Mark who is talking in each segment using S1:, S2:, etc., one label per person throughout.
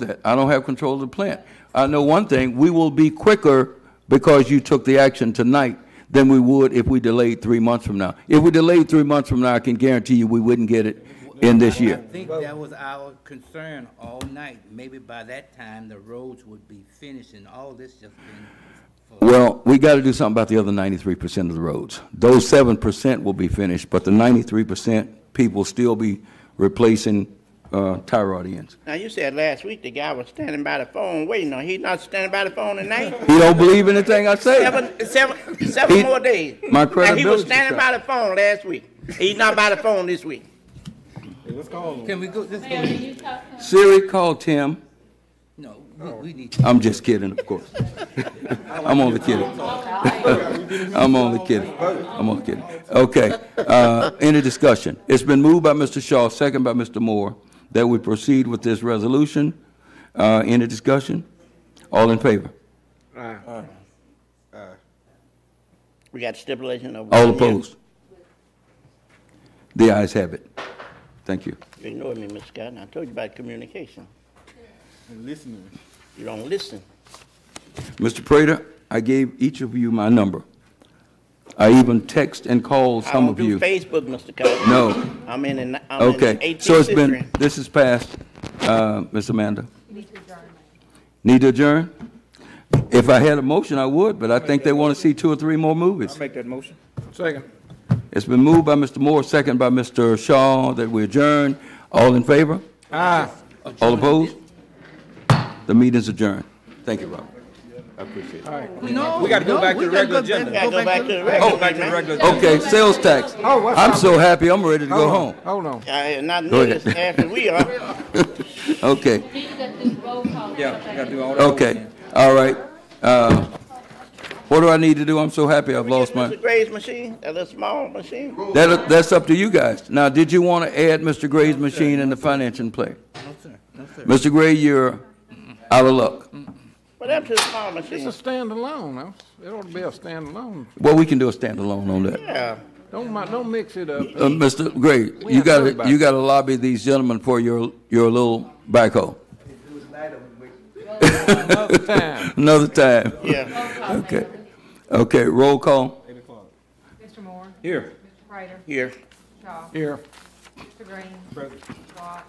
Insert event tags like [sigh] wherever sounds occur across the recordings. S1: that. I don't have control of the plant. I know one thing, we will be quicker because you took the action tonight than we would if we delayed three months from now. If we delayed three months from now, I can guarantee you we wouldn't get it in this
S2: I
S1: year.
S2: think that was our concern all night. Maybe by that time, the roads would be finished and all this just been for.
S1: Well, we got to do something about the other ninety-three percent of the roads. Those seven percent will be finished, but the ninety-three percent, people still be replacing, uh, tire ends.
S3: Now, you said last week the guy was standing by the phone waiting on, he not standing by the phone tonight?
S1: He don't believe anything I say.
S3: Seven, seven, seven
S1: He-
S3: more days.
S1: my
S3: Now, he was
S1: credibility's
S3: standing
S1: shot.
S3: by the phone last week. He's not by the phone this week.
S2: Can we go, let's
S4: Mayor,
S2: go,
S4: you talk to him.
S1: Siri, call Tim.
S2: no, we, we need.
S1: I'm just kidding, of course. [laughs] I'm only kidding. [laughs] I'm only kidding. I'm only kidding. Okay, uh, any discussion? It's been moved by Mr. Shaw, second by Mr. Moore, that we proceed with this resolution. Uh, any discussion? All in favor?
S3: We got stipulation of.
S1: All
S3: one year.
S1: opposed? The ayes have it. Thank you.
S3: You ignored me, Ms. Scott, and I told you about communication. And listening. You don't listen.
S1: Mr. Prater, I gave each of you my number. I even text and called some of you.
S3: I don't do Facebook, Mr. Cosby.
S1: No.
S3: I'm in, the- I'm in the
S1: Okay,
S3: 18th
S1: so it's
S3: century.
S1: been, this is passed, uh, Ms. Amanda. Need to adjourn? If I had a motion, I would, but I think they want to see two or three more movies.
S5: Make that motion.
S1: It's been moved by Mr. Moore, second by Mr. Shaw, that we adjourn. All in favor? Aye. All opposed? The meeting's adjourned. Thank you, Robert. I appreciate it.
S5: Oh, We gotta go back to the regular agenda.
S3: We gotta go back to the record.
S5: Go back to the regular agenda.
S1: Okay, sales tax. I'm so happy, I'm ready to go home.
S6: Oh, Hold on.
S3: I had not
S1: Go ahead.
S3: noticed after we are.
S1: Okay.
S4: You got to do roll call.
S5: Yeah, we gotta do all that.
S1: Okay, all right. Uh, What do I need to do? I'm so happy I've [laughs] lost my,
S3: Mr. Gray's machine, that little small machine.
S1: that, that's up to you guys. Now, did you want to add Mr. Gray's machine in the financing play?
S2: No, sir, no, sir.
S1: Mr. Gray, you're out of luck.
S3: What happened to the small
S6: It's a
S3: machine?
S6: standalone. huh? It ought to be a standalone.
S1: Well, we can do a standalone on that.
S3: Yeah.
S6: Don't, mi- don't mix it up.
S1: Uh, Mr. Gray, you gotta, you gotta lobby these gentlemen for your, your little backhoe.
S6: Another time.
S1: [laughs] Another time.
S3: Yeah.
S1: Okay. Okay, roll call.
S4: Mr. Moore,
S5: Here.
S4: Mr. Prater,
S3: Here.
S4: Shaw,
S6: Here.
S4: Mr. Green, Watt,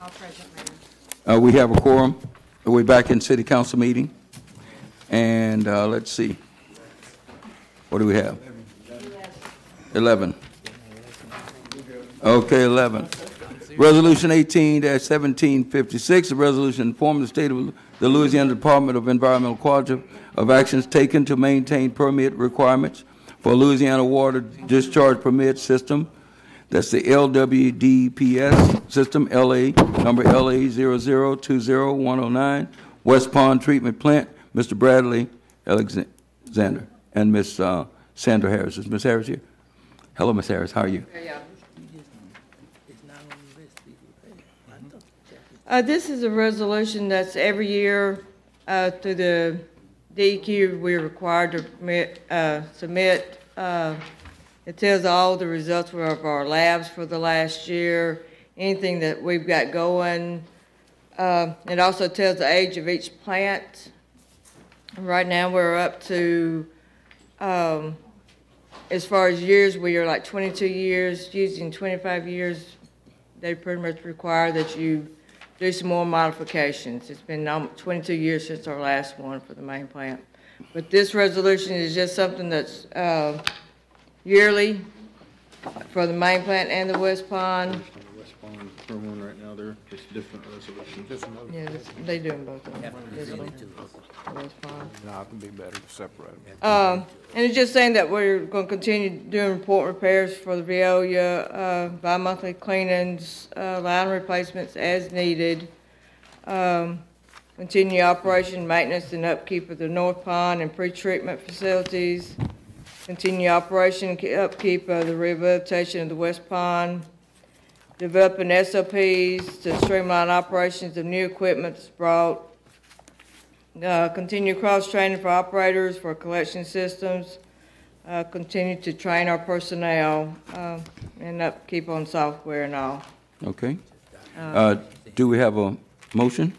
S4: all present, Mayor.
S1: Uh, we have a quorum. We're back in city council meeting. And, uh, let's see. What do we have? Eleven. Okay, eleven. Resolution eighteen seventeen fifty-six, a resolution informing the state of the Louisiana Department of Environmental Quality of actions taken to maintain permit requirements for Louisiana Water Discharge Permit System, that's the LWDPS system, LA, number LA 0020109, West Pond Treatment Plant, Mr. Bradley Alexander, and Ms. uh, Sandra Harris. Is Ms. Harris here? Hello, Ms. Harris, how are you?
S7: Uh, This is a resolution that's every year uh, through the DEQ, we're required to permit- uh, submit. uh, It tells all the results of our labs for the last year, anything that we've got going. Uh, It also tells the age of each plant. Right now, we're up to, um, as far as years, we are like 22 years, using 25 years. They pretty much require that you do some more modifications. It's been um, 22 years since our last one for the main plant. But this resolution is just something that's uh, yearly for the main plant and the West Pond.
S8: West Pond, from one right now, they're just different resolutions.
S7: Yeah, this- they do them both. of them. This one, West Pond.
S6: No, it can be better to separate them.
S7: Um, And it's just saying that we're going to continue doing report repairs for the Veolia, uh, bi-monthly cleanings, uh, line replacements as needed. Um, Continue operation, maintenance, and upkeep of the North Pond and pre-treatment facilities. Continue operation, and upkeep of the rehabilitation of the West Pond. Developing SOPs to streamline operations of new equipment that's brought uh, Continue cross-training for operators, for collection systems, uh, continue to train our personnel, uh, and upkeep on software and all.
S1: Okay. Uh, Do we have a motion?